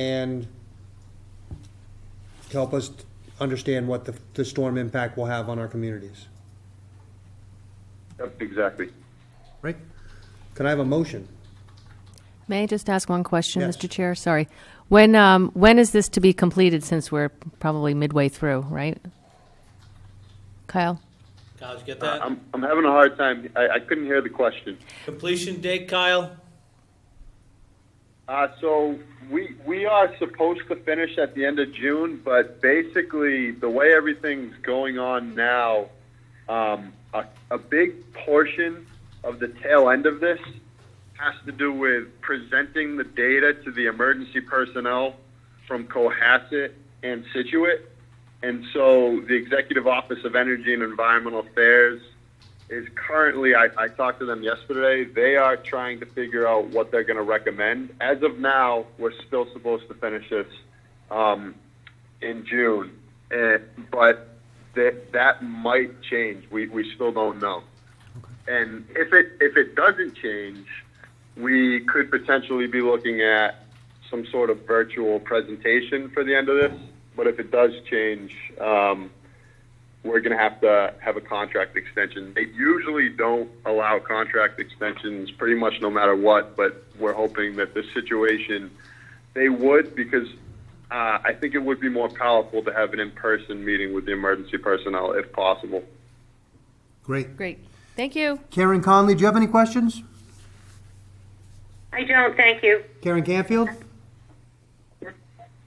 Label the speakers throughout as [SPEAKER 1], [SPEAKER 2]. [SPEAKER 1] and help us understand what the, the storm impact will have on our communities.
[SPEAKER 2] Yep, exactly.
[SPEAKER 1] Right? Can I have a motion?
[SPEAKER 3] May I just ask one question,
[SPEAKER 1] Yes.
[SPEAKER 3] Mr. Chair? Sorry. When, um, when is this to be completed, since we're probably midway through, right? Kyle?
[SPEAKER 4] Kyle, did you get that?
[SPEAKER 2] I'm, I'm having a hard time. I, I couldn't hear the question.
[SPEAKER 4] Completion date, Kyle?
[SPEAKER 2] Uh, so we, we are supposed to finish at the end of June, but basically the way everything's going on now, um, a, a big portion of the tail end of this has to do with presenting the data to the emergency personnel from Cohasset and Situate. And so the Executive Office of Energy and Environmental Affairs is currently, I, I talked to them yesterday, they are trying to figure out what they're going to recommend. As of now, we're still supposed to finish this um, in June, and, but that, that might change. We, we still don't know. And if it, if it doesn't change, we could potentially be looking at some sort of virtual presentation for the end of this. But if it does change, um, we're going to have to have a contract extension. They usually don't allow contract extensions pretty much no matter what, but we're hoping that this situation they would because uh, I think it would be more powerful to have an in person meeting with the emergency personnel if possible.
[SPEAKER 1] Great.
[SPEAKER 3] Great. Thank you.
[SPEAKER 1] Karen Conley, do you have any questions?
[SPEAKER 5] I don't, thank you.
[SPEAKER 1] Karen Canfield?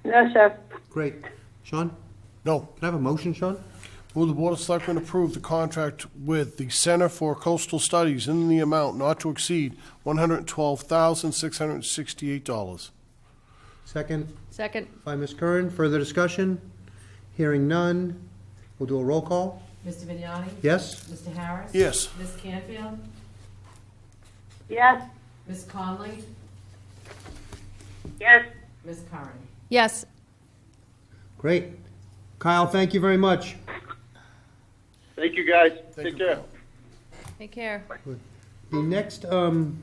[SPEAKER 5] No, sir.
[SPEAKER 1] Great. Sean?
[SPEAKER 6] No.
[SPEAKER 1] Can I have a motion, Sean?
[SPEAKER 6] Will the Board of Selectmen approve the contract with the Center for Coastal Studies in the amount not to exceed $112,668?
[SPEAKER 1] Second
[SPEAKER 3] Second.
[SPEAKER 1] by Ms. Curran. Further discussion? Hearing none. We'll do a roll call.
[SPEAKER 7] Mr. Vignani?
[SPEAKER 1] Yes?
[SPEAKER 7] Mr. Harris?
[SPEAKER 6] Yes.
[SPEAKER 7] Ms. Canfield?
[SPEAKER 5] Yes,
[SPEAKER 7] Ms. Conley?
[SPEAKER 5] yes,
[SPEAKER 7] Ms. Curran?
[SPEAKER 3] Yes.
[SPEAKER 1] Great. Kyle, thank you very much.
[SPEAKER 2] Thank you guys.
[SPEAKER 6] Thank
[SPEAKER 2] Take
[SPEAKER 6] you,
[SPEAKER 2] care.
[SPEAKER 6] Kyle.
[SPEAKER 3] Take care.
[SPEAKER 1] The next um,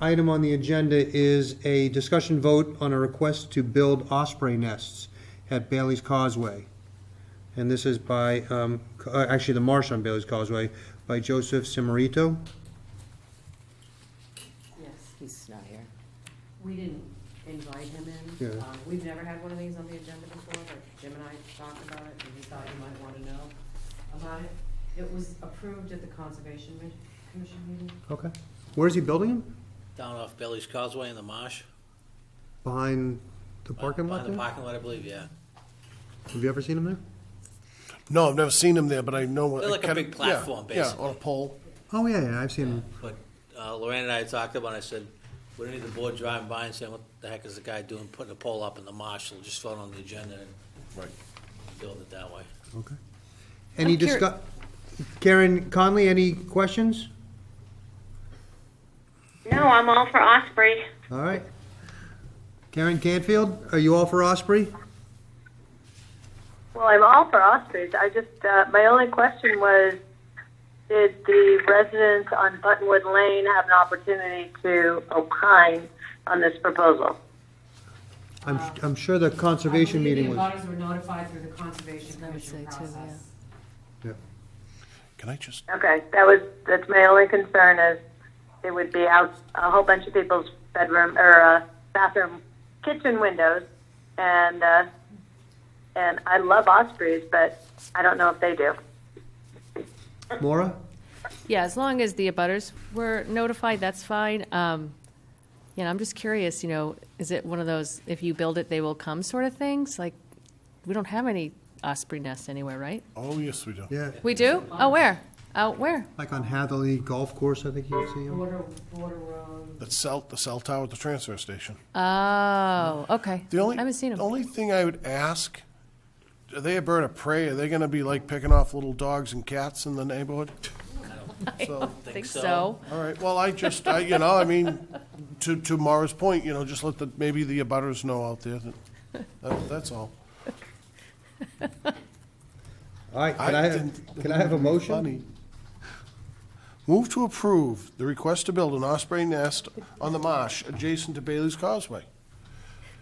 [SPEAKER 1] item on the agenda is a discussion vote on a request to build osprey nests at Bailey's Causeway. And this is by, um, c- uh, actually, the marsh on Bailey's Causeway, by Joseph Simarito.
[SPEAKER 7] Yes, he's not here. We didn't invite him in.
[SPEAKER 1] Yeah.
[SPEAKER 7] Um, We've never had one of these on the agenda before, but Jim and I talked about it, and we thought you might want to know about it. It was approved at the Conservation Mi- Commission meeting.
[SPEAKER 1] Okay. Where is he building him?
[SPEAKER 4] Down off Bailey's Causeway in the marsh.
[SPEAKER 1] Behind the parking lot
[SPEAKER 4] Behind the
[SPEAKER 1] there?
[SPEAKER 4] parking lot, I believe, yeah.
[SPEAKER 1] Have you ever seen him there?
[SPEAKER 6] No, I've never seen them there, but I know what.
[SPEAKER 4] They're like a
[SPEAKER 6] kind
[SPEAKER 4] big
[SPEAKER 6] of-
[SPEAKER 4] platform,
[SPEAKER 6] yeah, Yeah,
[SPEAKER 4] basically.
[SPEAKER 6] on a pole.
[SPEAKER 1] Oh, yeah, yeah, I've seen him.
[SPEAKER 4] But uh, Lorraine and I had talked about it, I said, we don't need the board driving by and saying, what the heck is the guy doing, putting a pole up in the marsh? We'll just throw it on the agenda and
[SPEAKER 6] Right.
[SPEAKER 4] build it that way.
[SPEAKER 1] Okay. Any
[SPEAKER 3] I'm curi-
[SPEAKER 1] discuss, Karen Conley, any questions?
[SPEAKER 5] no, I'm all for Osprey.
[SPEAKER 1] All right. Karen Canfield, are you all for Osprey?
[SPEAKER 8] Well, I'm all for ostrich. I just, uh, my only question was, did the residents on Buttonwood Lane have an opportunity to opine on this proposal?
[SPEAKER 1] I'm, I'm sure the conservation meeting
[SPEAKER 7] I
[SPEAKER 1] was.
[SPEAKER 7] believe the abutters were notified through the Conservation
[SPEAKER 3] I would
[SPEAKER 7] Commission
[SPEAKER 3] say too, yeah.
[SPEAKER 7] process.
[SPEAKER 1] yeah.
[SPEAKER 6] Can I just,
[SPEAKER 8] Okay, that was, that's my only concern is it would be out a whole bunch of people's bedroom or uh, bathroom, kitchen windows, and uh, and I love ospreys, but I don't know if they do.
[SPEAKER 1] Maura?
[SPEAKER 3] Yeah, as long as the abutters were notified, that's fine. Um, you know, I'm just curious, you know, is it one of those, if you build it, they will come sort of things? Like, we don't have any osprey nests anywhere, right?
[SPEAKER 6] oh, yes, we do.
[SPEAKER 1] Yeah,
[SPEAKER 3] We do? Oh, where? Out where?
[SPEAKER 1] like on Hathley Golf Course, I think you would see him.
[SPEAKER 7] Border, border road.
[SPEAKER 6] The cell, the cell tower at the transfer station.
[SPEAKER 3] Oh, okay.
[SPEAKER 6] The only,
[SPEAKER 3] I haven't seen them.
[SPEAKER 6] The only thing I would ask, are they a bird of prey? Are they going to be like picking off little dogs and cats in the neighborhood? So,
[SPEAKER 3] I
[SPEAKER 4] Think
[SPEAKER 3] think
[SPEAKER 4] so.
[SPEAKER 3] so.
[SPEAKER 6] all right, well, I just, I, you know, I mean, to, to Mara's point, you know, just let the, maybe the abutters know out there that, that- that's all.
[SPEAKER 1] All right, can I,
[SPEAKER 6] didn't-
[SPEAKER 1] can I have a motion?
[SPEAKER 6] Funny. Move to approve the request to build an osprey nest on the marsh adjacent to Bailey's Causeway.